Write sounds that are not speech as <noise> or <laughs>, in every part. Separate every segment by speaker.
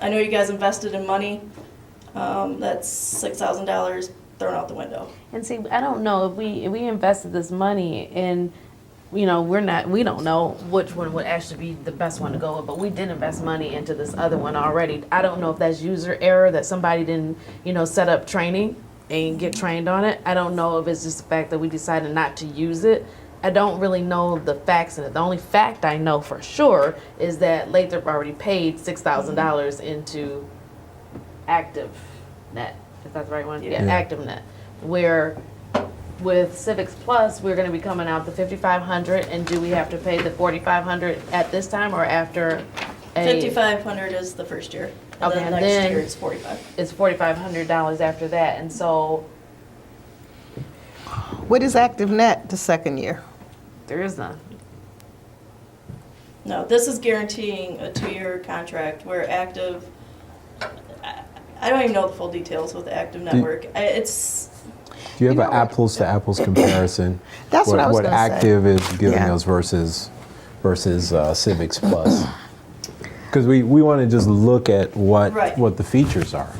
Speaker 1: I know you guys invested in money. Um, that's six thousand dollars thrown out the window.
Speaker 2: And see, I don't know if we if we invested this money in, you know, we're not we don't know which one would actually be the best one to go with, but we did invest money into this other one already. I don't know if that's user error that somebody didn't, you know, set up training and get trained on it. I don't know if it's just the fact that we decided not to use it. I don't really know the facts in it. The only fact I know for sure is that Lathrop already paid six thousand dollars into active net is that the right one yeah,
Speaker 3: Yeah.
Speaker 2: active net where with civics plus we're going to be coming out the 5500 and do we have to pay the 4500 at this time or after a,
Speaker 1: Fifty-five hundred is the first year. And
Speaker 2: Okay,
Speaker 1: then
Speaker 2: and
Speaker 1: next
Speaker 2: then-
Speaker 1: year it's forty-five.
Speaker 2: it's 4500 dollars after that and so
Speaker 4: What is active net the second year?
Speaker 2: there is none
Speaker 1: No, this is guaranteeing a two-year contract where active. I- I don't even know the full details with the active network. I- It's
Speaker 3: Do you have
Speaker 4: You
Speaker 3: an
Speaker 4: know what-
Speaker 3: apples to apples comparison?
Speaker 4: That's what I was gonna say.
Speaker 3: active is giving
Speaker 4: Yeah.
Speaker 3: us versus versus uh, Civics Plus? Because we, we want to just look at what
Speaker 1: Right.
Speaker 3: what the features are.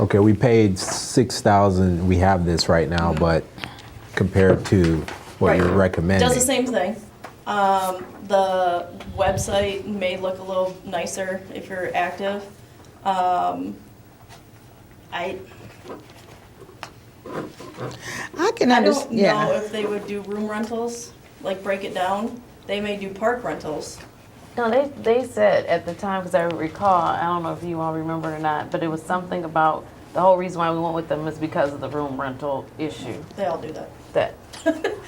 Speaker 3: Okay, we paid six thousand. We have this right now, but compared to what
Speaker 1: Right.
Speaker 3: you're recommending,
Speaker 1: Does the same thing. Um, the website may look a little nicer if you're active. Um, I,
Speaker 4: I can
Speaker 1: I don't
Speaker 4: understand,
Speaker 1: know
Speaker 4: yeah.
Speaker 1: if they would do room rentals, like break it down. They may do park rentals.
Speaker 2: No, they, they said at the time, because I recall, I don't know if you all remember or not, but it was something about the whole reason why we went with them is because of the room rental issue.
Speaker 1: They all do that.
Speaker 2: That,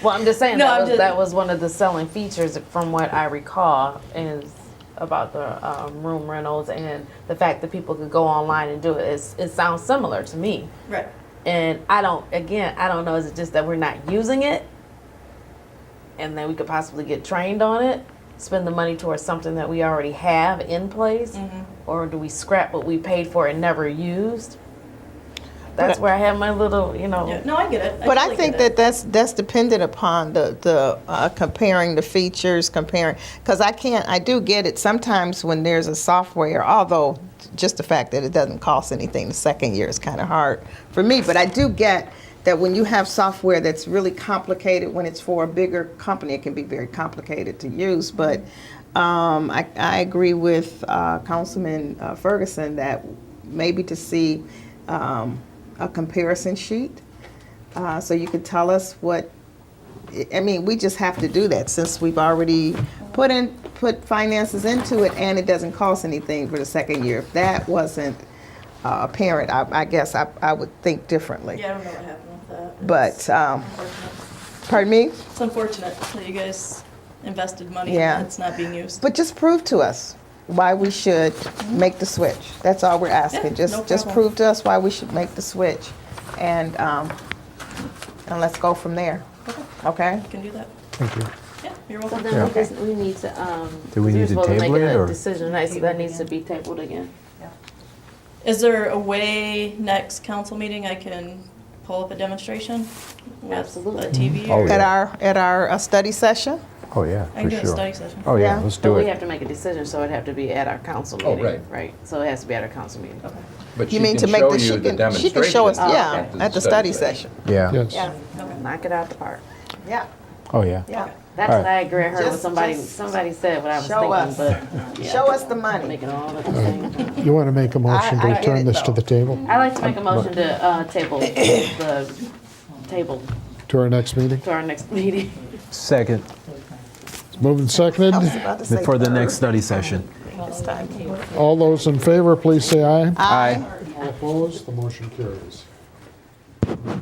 Speaker 2: well, I'm just
Speaker 1: <laughs>
Speaker 2: saying
Speaker 1: No,
Speaker 2: that,
Speaker 1: I'm
Speaker 2: was,
Speaker 1: just-
Speaker 2: that was one of the selling features, from what I recall, is about the um, room rentals and the fact that people could go online and do it. It's, it sounds similar to me,
Speaker 1: Right.
Speaker 2: and I don't. Again, I don't know. Is it just that we're not using it, and then we could possibly get trained on it, spend the money towards something that we already have in place,
Speaker 1: Mm-hmm.
Speaker 2: or do we scrap what we paid for and never used? That's where I have my little, you know.
Speaker 1: Yeah, No, I get it.
Speaker 4: But I
Speaker 1: totally
Speaker 4: think
Speaker 1: get
Speaker 4: that
Speaker 1: it.
Speaker 4: that's, that's dependent upon the, the, uh, comparing the features, comparing, because I can't, I do get it sometimes when there's a software, although just the fact that it doesn't cost anything the second year is kind of hard for me, but I do get that when you have software that's really complicated, when it's for a bigger company, it can be very complicated to use, but, um, I, I agree with, uh, Councilman uh, Ferguson that maybe to see, um, a comparison sheet uh, so you could tell us what, I mean, we just have to do that since we've already put in, put finances into it and it doesn't cost anything for the second year. If that wasn't uh, apparent, I, I guess I, I would think differently.
Speaker 1: Yeah, I don't know what happened with that.
Speaker 4: But, um,
Speaker 1: It's unfortunate.
Speaker 4: pardon me,
Speaker 1: It's unfortunate that you guys invested money
Speaker 4: Yeah.
Speaker 1: that's not being used.
Speaker 4: but just prove to us why we should make the switch. That's all we're
Speaker 1: Yeah, no
Speaker 4: asking. Just, just
Speaker 1: problem.
Speaker 4: prove to us why we should make the switch and, um, and let's go from there. Okay?
Speaker 1: You can do that.
Speaker 3: Thank you.
Speaker 1: Yeah, you're
Speaker 2: So
Speaker 1: welcome.
Speaker 2: then we just, we need to, um.
Speaker 3: Do we
Speaker 2: you're
Speaker 3: need to
Speaker 2: supposed
Speaker 3: table
Speaker 2: make
Speaker 3: it,
Speaker 2: a
Speaker 3: or-
Speaker 2: Decision tonight, so that needs to be tabled again.
Speaker 1: Is there a way next council meeting I can pull up a demonstration? with
Speaker 2: Absolutely.
Speaker 1: A TV
Speaker 3: Oh,
Speaker 1: or?
Speaker 3: yeah.
Speaker 4: At our, at our uh, study session?
Speaker 3: Oh yeah,
Speaker 1: I can
Speaker 3: for
Speaker 1: do a
Speaker 3: sure.
Speaker 1: study session.
Speaker 3: Oh yeah,
Speaker 4: Yeah.
Speaker 3: let's do
Speaker 2: But we have
Speaker 3: it.
Speaker 2: to make a decision, so it'd have to be at our council
Speaker 5: Oh,
Speaker 2: meeting.
Speaker 5: right.
Speaker 2: Right, so it has to be at our council meeting.
Speaker 1: Okay,
Speaker 5: But
Speaker 4: You
Speaker 5: she
Speaker 4: mean to
Speaker 5: can
Speaker 4: make
Speaker 5: show
Speaker 4: the,
Speaker 5: you
Speaker 4: she
Speaker 5: the
Speaker 4: can, she can show us,
Speaker 2: demonstration
Speaker 4: yeah, at the study session.
Speaker 3: Yeah.
Speaker 6: Yes.
Speaker 2: Yeah,
Speaker 1: okay.
Speaker 2: knock it out the park.
Speaker 4: Yeah,
Speaker 3: Oh yeah.
Speaker 4: yeah.
Speaker 2: That's
Speaker 3: Alright.
Speaker 2: what I agree, I heard what
Speaker 4: Just-
Speaker 2: somebody,
Speaker 4: just
Speaker 2: somebody said what I
Speaker 4: show
Speaker 2: was thinking, but. yeah,
Speaker 4: Show us the money.
Speaker 2: Making all of the thing.
Speaker 6: You want to make a motion to
Speaker 4: I get it,
Speaker 6: return this to
Speaker 4: though.
Speaker 6: the table,
Speaker 2: I'd like to make a motion to, uh, table, the, table
Speaker 6: to our next meeting?
Speaker 2: to our next meeting.
Speaker 3: Second
Speaker 6: It's moved and seconded.
Speaker 4: I was about to say
Speaker 3: for the
Speaker 4: third
Speaker 3: next study session.
Speaker 4: this time.
Speaker 6: All those in favor, please say aye.
Speaker 3: Aye.
Speaker 6: All opposed, the motion carries.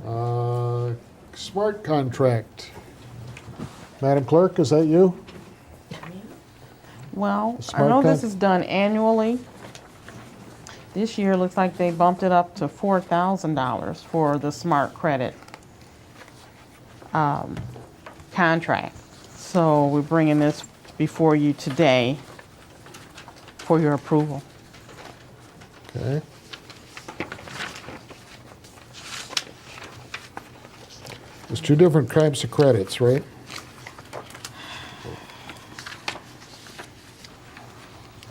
Speaker 6: Uh, Smart contract. Madam Clerk, is that you?
Speaker 7: Well, I
Speaker 6: Smart
Speaker 7: know this
Speaker 6: cut.
Speaker 7: is done annually. This year, looks like they bumped it up to four thousand dollars for the smart credit um, contract. So we're bringing this before you today for your approval.
Speaker 6: Okay. There's two different types of credits, right?